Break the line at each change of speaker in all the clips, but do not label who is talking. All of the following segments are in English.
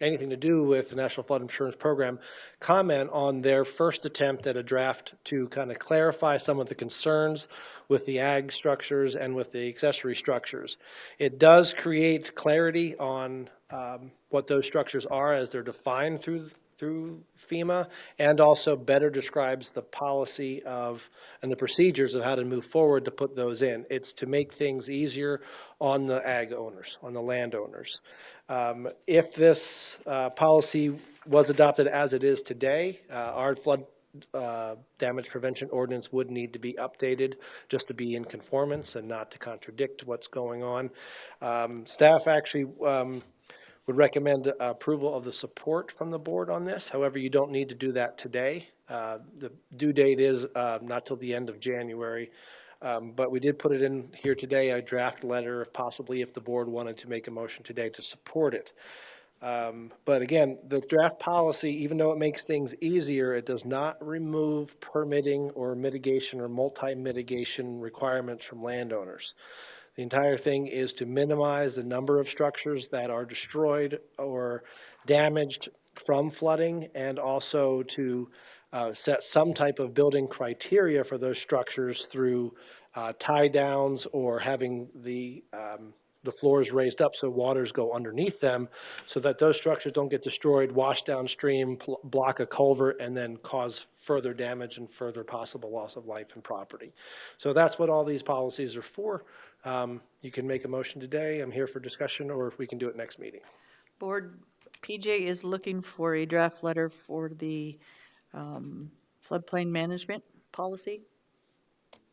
anything to do with the National Flood Insurance Program, comment on their first attempt at a draft to kind of clarify some of the concerns with the ag structures and with the accessory structures. It does create clarity on um, what those structures are as they're defined through, through FEMA, and also better describes the policy of, and the procedures of how to move forward to put those in. It's to make things easier on the ag owners, on the landowners. Um, If this uh, policy was adopted as it is today, uh, our flood uh, damage prevention ordinance would need to be updated just to be in conformance and not to contradict what's going on. Um, Staff actually um, would recommend uh, approval of the support from the board on this. However, you don't need to do that today. Uh, The due date is uh, not till the end of January. Um, But we did put it in here today, a draft letter, if possibly if the board wanted to make a motion today to support it. But again, the draft policy, even though it makes things easier, it does not remove permitting or mitigation or multi-mitigation requirements from landowners. The entire thing is to minimize the number of structures that are destroyed or damaged from flooding and also to uh, set some type of building criteria for those structures through uh, tie downs or having the um, the floors raised up so waters go underneath them so that those structures don't get destroyed, wash downstream, pl- block a culvert, and then cause further damage and further possible loss of life and property. So that's what all these policies are for. Um, You can make a motion today. I'm here for discussion, or we can do it next meeting.
Board, PJ is looking for a draft letter for the um, floodplain management policy.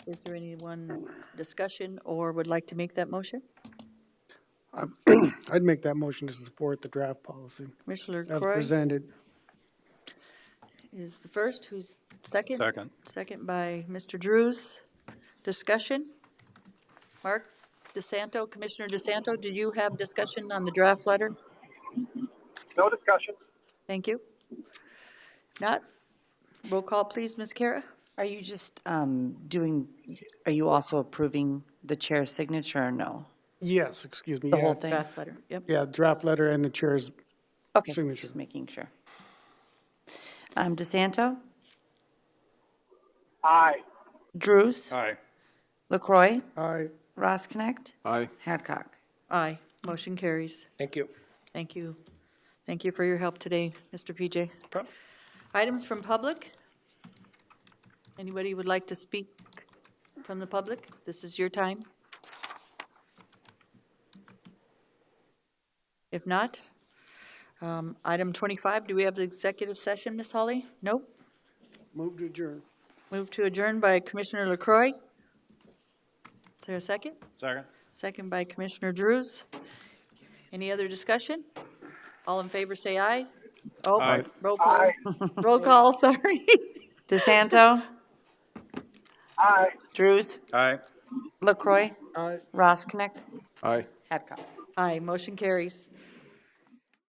Is there anyone discussion or would like to make that motion?
I'd make that motion to support the draft policy
Commissioner
as
Croy
presented.
is the first, who's second?
Second.
Second by Mr. Drews. Discussion? Mark DeSanto, Commissioner DeSanto, did you have discussion on the draft letter?
No discussion.
Thank you. Not? Roll call, please, Ms. Kara?
Are you just um, doing, are you also approving the chair's signature or no?
Yes, excuse me.
The
yeah.
whole thing?
Draft letter, yep.
Yeah, draft letter and the chair's,
Okay,
signature.
just making sure. Um, DeSanto?
Aye.
Drews?
Aye.
LaCroy?
aye,
Ross Connect?
Aye.
Hadcock?
Aye, motion carries.
Thank you.
Thank you. Thank you for your help today, Mr. PJ.
Problem?
Items from public? Anybody would like to speak from the public? This is your time. If not, um, item 25, do we have the executive session, Ms. Holly? Nope.
move to adjourn.
Move to adjourn by Commissioner LaCroy. Is there a second?
Second.
Second by Commissioner Drews. Any other discussion? All in favor, say aye. Oh,
Aye.
Roll call, roll call, sorry.
DeSanto?
Aye.
Drews?
Aye.
LaCroy?
Aye.
Ross Connect?
Aye.
Hadcock?
Aye, motion carries.